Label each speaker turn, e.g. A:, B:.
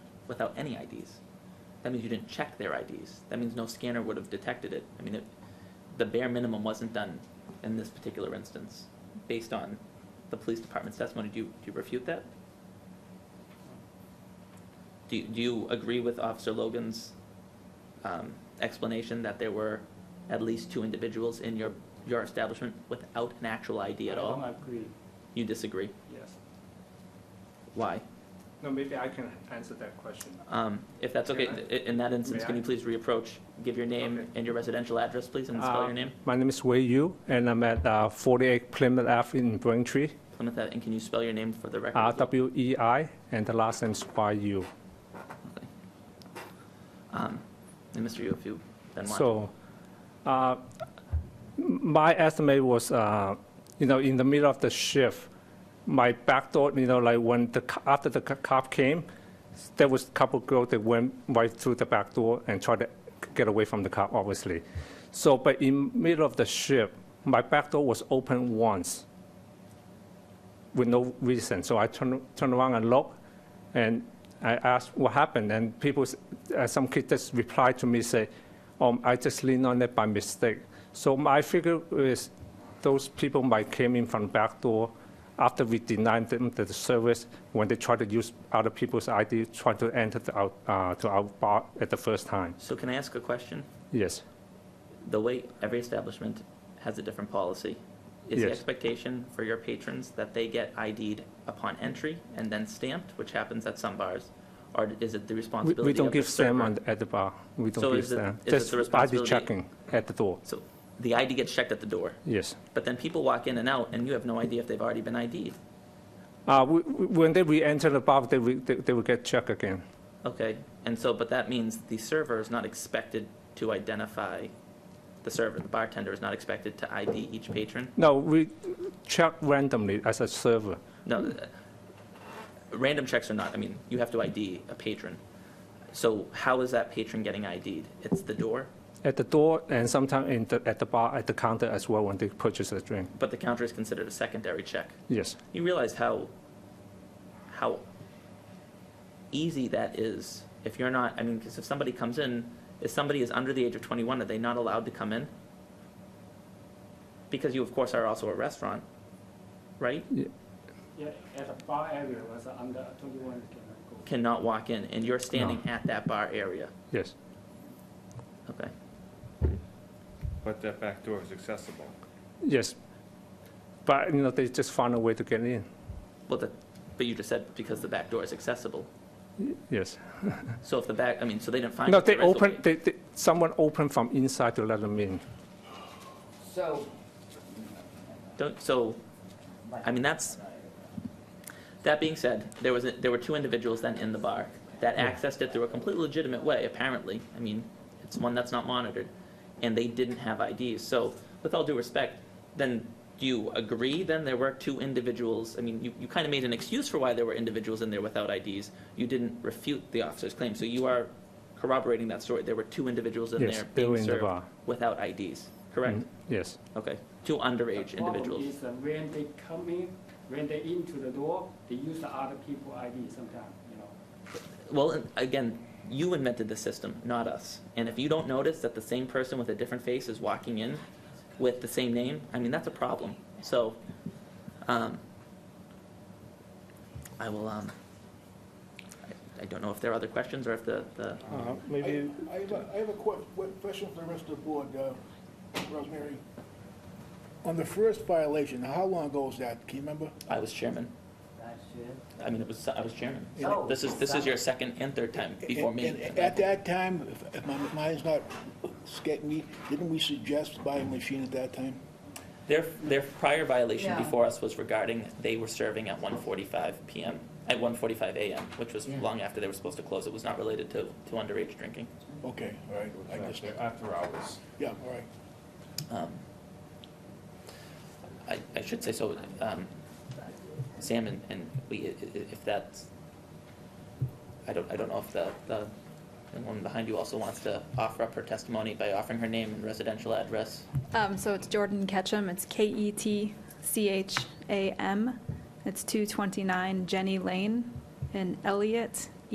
A: without any IDs. That means you didn't check their IDs. That means no scanner would have detected it. I mean, it, the bare minimum wasn't done in this particular instance, based on the police department's testimony. Do you, do you refute that? Do, you- do you agree with Officer Logan's um, explanation that there were at least two individuals in your, your establishment without an actual ID at
B: I
A: all?
B: don't agree,
A: You disagree?
B: yes.
A: Why?
B: No, maybe I can answer that question.
A: Um, If that's okay,
B: Can I?
A: i- in that instance,
B: May
A: can you
B: I?
A: please reapproach, give your name
B: Okay.
A: and your residential address, please, and spell your
B: Um,
A: name?
B: My name is Wei Yu, and I'm at uh, 48 Plymouth Ave in Braintree,
A: Plymouth, Ave- and can you spell your name for the record?
B: Uh,
A: as well?
B: R-W-E-I, and the last name is Y-U.
A: Okay. Um, And Mr. Yu, if you then want.
B: So, uh, my estimate was, uh, you know, in the middle of the shift, my back door, you know, like when the, co- after the co- cop came, there was a couple girls that went right through the back door and tried to get away from the cop, obviously. So, but in middle of the shift, my back door was open once with no reason. So I turned, turned around and looked, and I asked what happened. And people, s- uh, some kid just replied to me, say, um, I just leaned on it by mistake. So my figure is those people might came in from back door after we denied them the service when they tried to use other people's ID, try to enter the out, uh, to our bar at the first time.
A: So can I ask a question?
B: Yes.
A: The way every establishment has a different policy, is the
B: Yes.
A: expectation for your patrons that they get ID'd upon entry and then stamped, which happens at some bars? Or is it the
B: We,
A: responsibility
B: we
A: of the
B: don't give them
A: server?
B: on, at the bar. We don't
A: So
B: give
A: is it-
B: them.
A: is it
B: just
A: the
B: ID
A: responsibility-
B: checking at the door.
A: So the ID gets checked at the door,
B: Yes.
A: but then people walk in and out, and you have no idea if they've already been ID'd.
B: Uh, we, we- when they re-enter the bar, they, will- they, they will get checked again.
A: Okay, and so, but that means the server is not expected to identify the server, the bartender is not expected to ID each patron?
B: No, we check randomly as a server.
A: No, th- random checks are not, I mean, you have to ID a patron. So how is that patron getting ID'd? It's the door,
B: At the door and sometimes in the, at the bar, at the counter as well when they purchase a drink.
A: but the counter is considered a secondary check.
B: Yes.
A: You realize how, how easy that is if you're not, I mean, because if somebody comes in, if somebody is under the age of 21, are they not allowed to come in? Because you, of course, are also a restaurant, right?
C: Yeah, at the bar area was under twenty-one cannot go.
A: Cannot walk in, and you're standing at that bar area.
B: Yes.
A: Okay.
D: But that back door is accessible.
B: Yes. But, you know, they just find a way to get in.
A: Well, that, but you just said because the back door is accessible.
B: Yes.
A: So if the back, I mean, so they didn't find.
B: No,
A: it the
B: they
A: rest of the
B: open,
A: way.
B: they, they, someone opened from inside to let them in.
E: So,
A: Don't, so, I mean, that's, that being said, there was, a- there were two individuals then in the bar that accessed it through a completely legitimate way, apparently. I mean, it's one that's not monitored, and they didn't have IDs. So with all due respect, then do you agree then there were two individuals? I mean, you, you kind of made an excuse for why there were individuals in there without IDs. You didn't refute the officer's claim, so you are corroborating that story. There were two individuals in
B: Yes,
A: there
B: they were
A: being
B: in the
A: served
B: bar.
A: without IDs, correct?
B: Mm, Yes.
A: Okay, two underage
C: The problem
A: individuals.
C: is that when they come in, when they into the door, they use the other people ID sometime, you know.
A: Well, and again, you invented the system, not us. And if you don't notice that the same person with a different face is walking in with the same name, I mean, that's a problem. So, um, I will, um, I, I don't know if there are other questions or if the, the,
B: Maybe,
F: I I have a, I have a que- que- question for the rest of the board, uh, Rosemary. On the first violation, how long ago was that? Can you remember?
A: I was chairman.
E: that's it.
A: I mean, it was, I was chairman.
E: Oh,
A: This is, this is your second and third time before
F: And-
A: me.
F: and At that time, if- if my mind's not sca- me, didn't we suggest buying a machine at that time?
A: Their, their prior violation
E: Yeah.
A: before us was regarding, they were serving at 1:45 PM, at 1:45 AM, which was
E: Yeah.
A: long after they were supposed to close. It was not related to, to underage drinking.
F: Okay, all right, I just,
D: After hours.
F: yeah, all right.
A: Um, I, I should say so, um, Sam and, and we, i- i- if that's, I don't, I don't know if the, the the woman behind you also wants to offer up her testimony by offering her name and residential address.
G: Um, so it's Jordan Ketchum. It's K E T C H A M. It's 229 Jenny Lane in Elliott,